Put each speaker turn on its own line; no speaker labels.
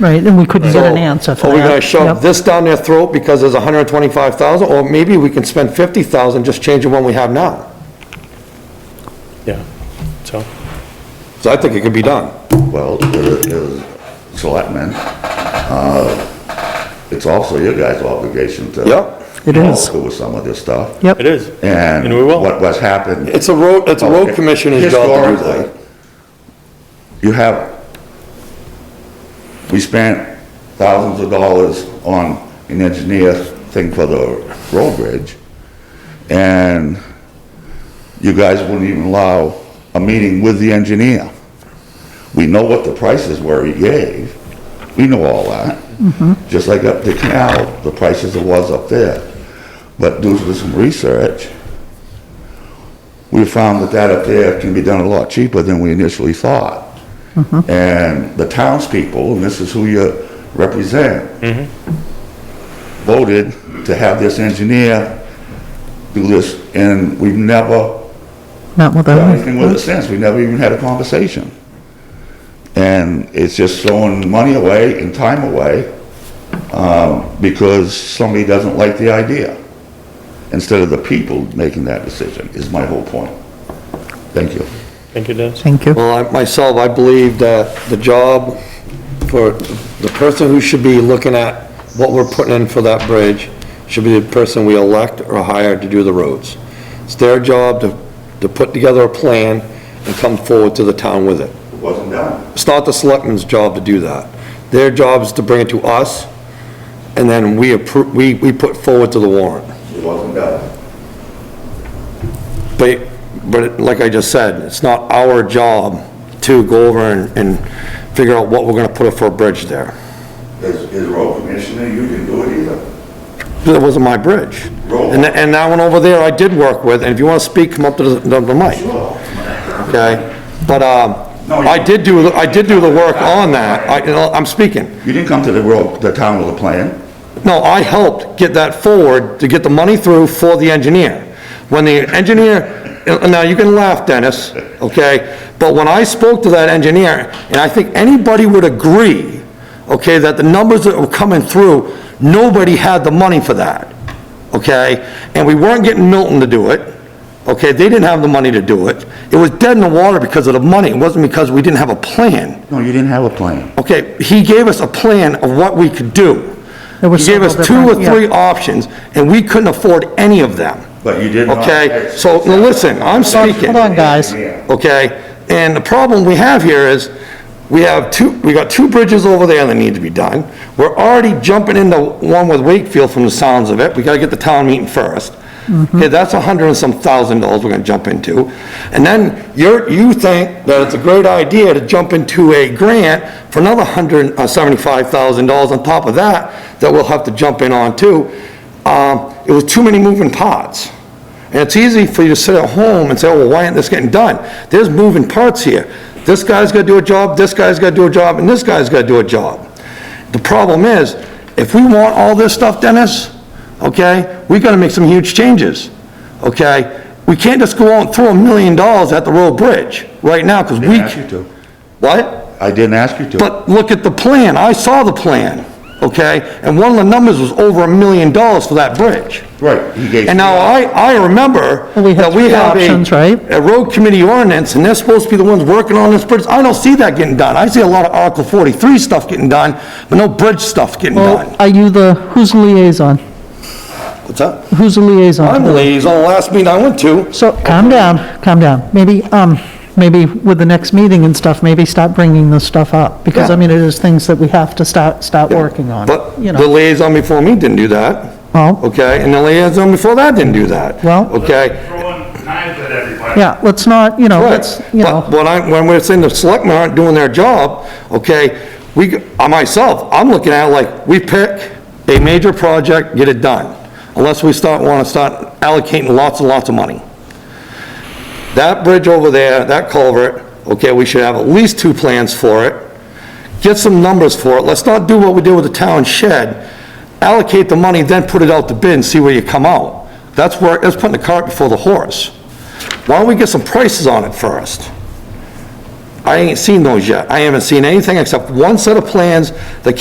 Right, and we couldn't get an
So,
answer for
Are
that.
we gonna shove
Yep.
this down their throat because there's hundred and twenty-five thousand, or maybe we can spend fifty thousand, just change the one we have now?
Yeah, so,
So I think it could be done.
Well, the, the selectmen, uh, it's also your guys' obligation to.
Yep.
It
follow
is.
through with some of this stuff.
Yep.
it is.
And
And we will.
what, what's happened.
It's a road, it's a road
Okay.
commissioner's job to do that.
Historically, You have, we spent thousands of dollars on an engineer thing for the road bridge, and you guys wouldn't even allow a meeting with the engineer. We know what the prices were he gave, we know all that. Just like up the canal, the prices it was up there. But due to some research, we found that that up there can be done a lot cheaper than we initially thought. And the townspeople, and this is who you represent, voted to have this engineer do this, and we've never
Not with
done anything with it
them.
since. We never even had a conversation. And it's just throwing money away and time away, um, because somebody doesn't like the idea, instead of the people making that decision, is my whole point. Thank you.
Thank you, Dennis.
Thank you.
Well, I- myself, I believe that the job for, the person who should be looking at what we're putting in for that bridge should be the person we elect or hire to do the roads. It's their job to, to put together a plan and come forward to the town with it.
It wasn't done.
It's not the selectmen's job to do that. Their job is to bring it to us, and then we approve, we, we put forward to the warrant.
It wasn't done.
But, but like I just said, it's not our job to go over and, and figure out what we're gonna put up for a bridge there.
As, as road commissioner, you didn't do it either.
That wasn't my bridge. And, tha- and that one over there I did work with, and if you wanna speak, come up to the, the mic, okay? But, um,
No, you-
I did do, I did do the work on that, I, you know, I'm speaking.
You didn't come to the road, the town with a plan.
No, I helped get that forward to get the money through for the engineer. When the engineer, now you can laugh, Dennis, okay? But when I spoke to that engineer, and I think anybody would agree, okay, that the numbers that were coming through, nobody had the money for that, okay? And we weren't getting Milton to do it, okay? They didn't have the money to do it. It was dead in the water because of the money. It wasn't because we didn't have a plan.
No, you didn't have a plan.
Okay, he gave us a plan of what we could do. He
There were
gave us two
several
or
different- yeah.
three options, and we couldn't afford any of them.
But you did not-
Okay, so, now listen, I'm speaking,
Hold on, guys.
okay? And the problem we have here is, we have two, we got two bridges over there that need to be done. We're already jumping into one with Wakefield from the sounds of it, we gotta get the town meeting first. Okay, that's a hundred and some thousand dollars we're gonna jump into. And then you're, you think that it's a great idea to jump into a grant for another hundred, uh, seventy-five thousand dollars on top of that, that we'll have to jump in on too. Um, it was too many moving parts. And it's easy for you to sit at home and say, oh, well, why isn't this getting done? There's moving parts here. This guy's gotta do a job, this guy's gotta do a job, and this guy's gotta do a job. The problem is, if we want all this stuff, Dennis, okay, we gotta make some huge changes, okay? We can't just go out and throw a million dollars at the road bridge right now, because we...
Didn't ask you to.
What?
I didn't ask you to.
But look at the plan, I saw the plan, okay? And one of the numbers was over a million dollars for that bridge.
Right, he gave
And now
you-
I, I remember
Well, we had
that we
three
have a-
options, right?
A road committee ordinance, and they're supposed to be the ones working on this bridge. I don't see that getting done. I see a lot of Article 43 stuff getting done, but no bridge stuff getting
Well,
done.
are you the, who's the liaison?
What's up?
Who's the liaison?
I'm the liaison, the last meeting I went to.
So, calm down, calm down. Maybe, um, maybe with the next meeting and stuff, maybe start bringing this stuff up, because, I
Yeah.
mean, it is things that we have to start, start working on,
But
you
the
know.
liaison before me didn't do that,
Well,
okay? And the liaison before that didn't do that.
Well-
Okay?
throwing knives at everybody.
yeah, let's not, you know,
Right.
let's, you
But
know,
when I, when we're saying the selectmen aren't doing their job, okay, we, I myself, I'm looking at it like, we pick a major project, get it done, unless we start, wanna start allocating lots and lots of money. That bridge over there, that culvert, okay, we should have at least two plans for it. Get some numbers for it. Let's not do what we did with the town shed. Allocate the money, then put it out to bid and see where you come out. That's where, that's putting the cart before the horse. Why don't we get some prices on it first? I I ain't seen those yet. I haven't seen anything except one set of plans that came